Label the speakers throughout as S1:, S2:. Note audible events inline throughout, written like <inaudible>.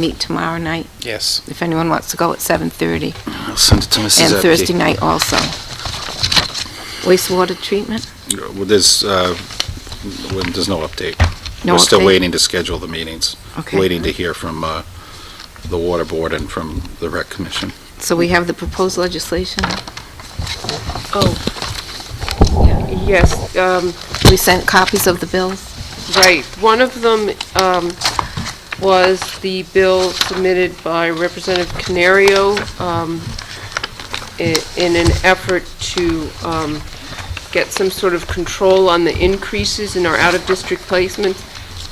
S1: meet tomorrow night,
S2: Yes.
S1: if anyone wants to go at 7:30.
S3: I'll send it to Mrs.
S1: And
S3: Epke.
S1: Thursday night also. Wastewater treatment?
S3: Well, There's, uh, well, there's no update.
S1: No
S3: We're still
S1: update?
S3: waiting to schedule the meetings.
S1: Okay.
S3: Waiting to hear from uh, the Water Board and from the Rec Commission.
S1: So we have the proposed legislation.
S4: Oh, yes, um,
S1: We sent copies of the bills.
S4: right. One of them um, was the bill submitted by Representative Canario um, i- in an effort to um, get some sort of control on the increases in our out-of-district placements.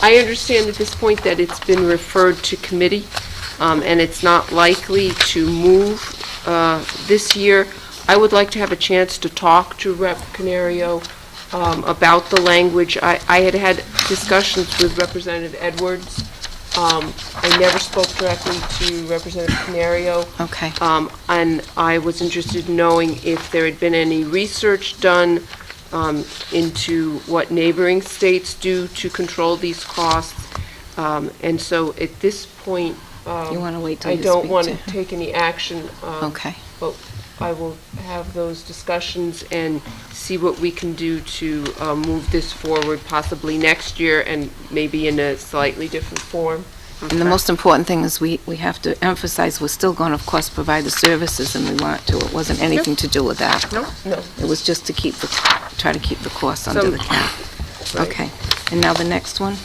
S4: I understand at this point that it's been referred to committee, um, and it's not likely to move uh, this year. I would like to have a chance to talk to Rep. Canario um, about the language. I I had had discussions with Representative Edwards. Um, I never spoke directly to Representative Canario.
S1: Okay.
S4: Um, And I was interested in knowing if there had been any research done um, into what neighboring states do to control these costs. Um, And so at this point, um,
S1: You want to wait till
S4: I
S1: you
S4: don't
S1: speak
S4: want
S1: to
S4: to
S1: her?
S4: take any action. um,
S1: Okay.
S4: But I will have those discussions and see what we can do to uh, move this forward possibly next year and maybe in a slightly different form.
S1: And the most important thing is we, we have to emphasize, we're still going to, of course, provide the services and we want to. It wasn't anything to do with that.
S4: No. No.
S1: It was just to keep, the try to keep the cost under
S4: Some-
S1: the cap.
S4: Right.
S1: Okay. And now the next one,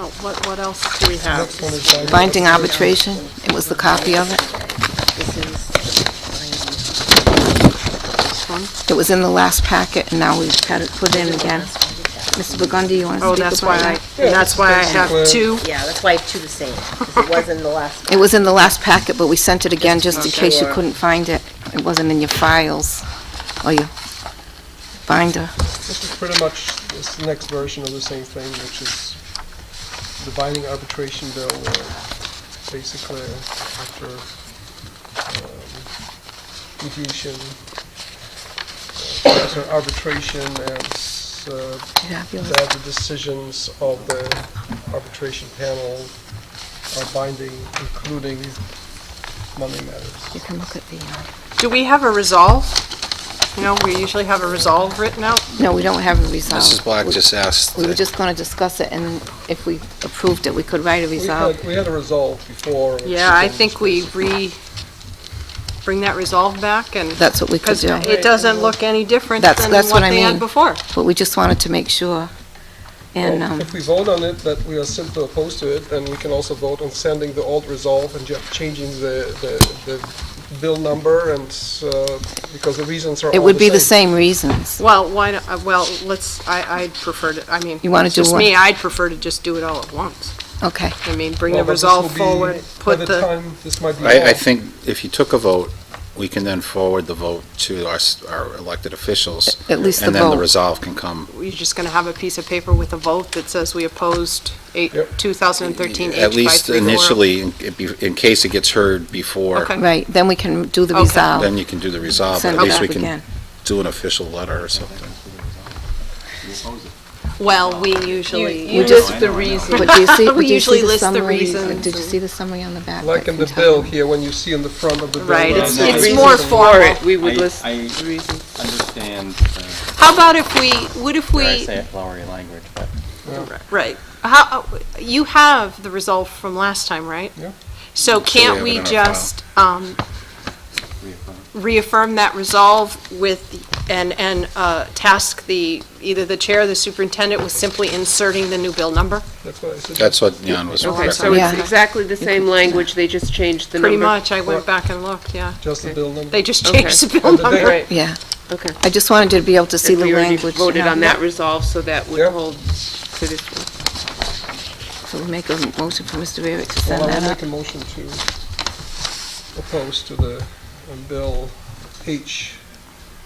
S5: No, what, what else do we have?
S1: binding arbitration. It was the copy of it.
S5: This is- This one?
S1: It was in the last packet, and now we've had it put in again. Mr. Burgundy, you want to
S5: Oh,
S1: speak
S5: that's why
S1: about
S5: I,
S1: that?
S5: and that's why I have two.
S6: Yeah, that's why I have two the same, 'cause it was in the last.
S1: It was in the last packet, but we sent it again just in
S6: Okay.
S1: case you
S6: Sure.
S1: couldn't find it. It wasn't in your files or your binder.
S7: This is pretty much, it's the next version of the same thing, which is the binding arbitration bill, where basically after um, mediation, uh, after arbitration, and s- uh, that the decisions of the arbitration panel are binding, including money matters.
S1: You can look at the, uh,
S5: Do we have a resolve? You know, we usually have a resolve written out.
S1: no, we don't have a resolve.
S2: Mrs. Black just asked,
S1: Oh. We were just going to discuss it, and if we approved it, we could write a
S7: We
S1: resolve.
S7: had- We had a resolve before. which
S5: Yeah, I
S7: becomes-
S5: think we re, bring that resolve back and,
S1: That's what we could
S5: because
S1: do.
S5: it doesn't look any different
S1: That's-
S5: than
S1: that's what
S5: what
S1: I
S5: they
S1: mean.
S5: had before.
S1: But we just wanted to make sure. And,
S7: Well,
S1: um,
S7: If we vote on it, that we are simply opposed to it, and we can also vote on sending the old resolve and just changing the, the, the bill number and, uh, because the reasons are all the same.
S1: it would be the same reasons.
S5: Well, why, don't- uh, well, let's, I, I'd prefer to, I mean,
S1: You wanna
S5: it's
S1: do
S5: just
S1: one-
S5: me, I'd prefer to just do it all at once.
S1: Okay.
S5: I mean, bring
S7: Well,
S5: the
S7: but this will
S5: resolve
S7: be-
S5: forward, put
S7: By the
S5: the,
S7: time, this might be law.
S3: I, I think if you took a vote, we can then forward the vote to our, s- our elected officials.
S1: At least the
S3: And then the
S1: vote.
S3: resolve can come.
S5: you're just gonna have a piece of paper with a vote that says we opposed eight,
S7: Yep.
S5: 2013 H
S3: At least
S5: 534.
S3: initially, in- it be- in case it gets heard before,
S5: Okay.
S1: Right, then we can do the
S5: Okay.
S1: resolve.
S3: then you can do the resolve. but
S1: Send
S3: At
S1: it
S3: least
S1: back
S3: we can
S1: again.
S3: do an official letter or something.
S5: Well, we
S4: You
S5: usually.
S4: you list the reason.
S1: But do you see,
S5: <laughs> We
S1: but do you
S5: usually
S1: see the
S5: list the
S1: summary?
S5: reasons
S1: Did you
S5: and-
S1: see the summary on the back?
S7: Like
S1: that
S7: in the
S1: can tell
S7: bill
S1: you?
S7: here, when you see in the front of the bill.
S5: Right,
S7: the
S5: it's,
S8: no,
S5: it's
S8: it's
S5: more
S7: reasons
S5: formal.
S4: We would
S8: I-
S4: list
S8: I
S4: the reason.
S8: understand the,
S5: How about if we, what if
S8: dare I
S5: we,
S8: say it, flowery language, but
S5: right, how, you have the resolve from last time, right?
S7: Yeah.
S5: So
S3: have
S5: can't we
S3: it in our file.
S5: just, um,
S8: reaffirm.
S5: reaffirm that resolve with, the- and, and uh, task the, either the chair or the superintendent with simply inserting the new bill number?
S7: That's what I said.
S3: That's what Jan was
S4: Okay,
S3: referencing.
S4: so it's
S1: Yeah.
S4: exactly the same language, they just changed the number.
S5: Pretty much, I
S7: Or-
S5: went back and looked, yeah.
S7: Just the bill number.
S5: They just
S4: Okay.
S5: changed the bill
S7: And the big-
S5: number.
S4: Right,
S1: Yeah,
S4: okay.
S1: I just wanted you to be able to see
S4: And
S1: the
S4: we already
S1: language.
S4: voted
S1: now.
S4: on that resolve, so that would
S7: Yeah.
S4: hold to this one.
S1: So we make a motion for Mr. Rarick to send
S7: Well, I
S1: that
S7: will
S1: up.
S7: make a motion to oppose to the um, bill H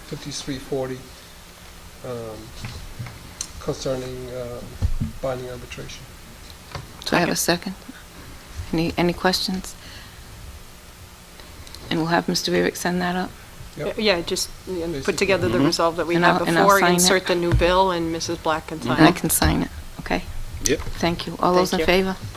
S7: 5340 um, concerning um, binding arbitration.
S1: Do I have a second? Any, any questions? And we'll have Mr. Rarick send that up.
S7: Yep.
S5: Yeah, just you know, put together the resolve that we
S1: And
S5: had
S1: I'll- and I'll
S5: before,
S1: sign it. Mm-hmm.
S5: insert the new bill, and Mrs. Black can sign
S1: And I
S5: it.
S1: can sign it, okay?
S3: Yep.
S1: Thank you. All those in
S4: Uh-huh. Thank you.
S1: favor?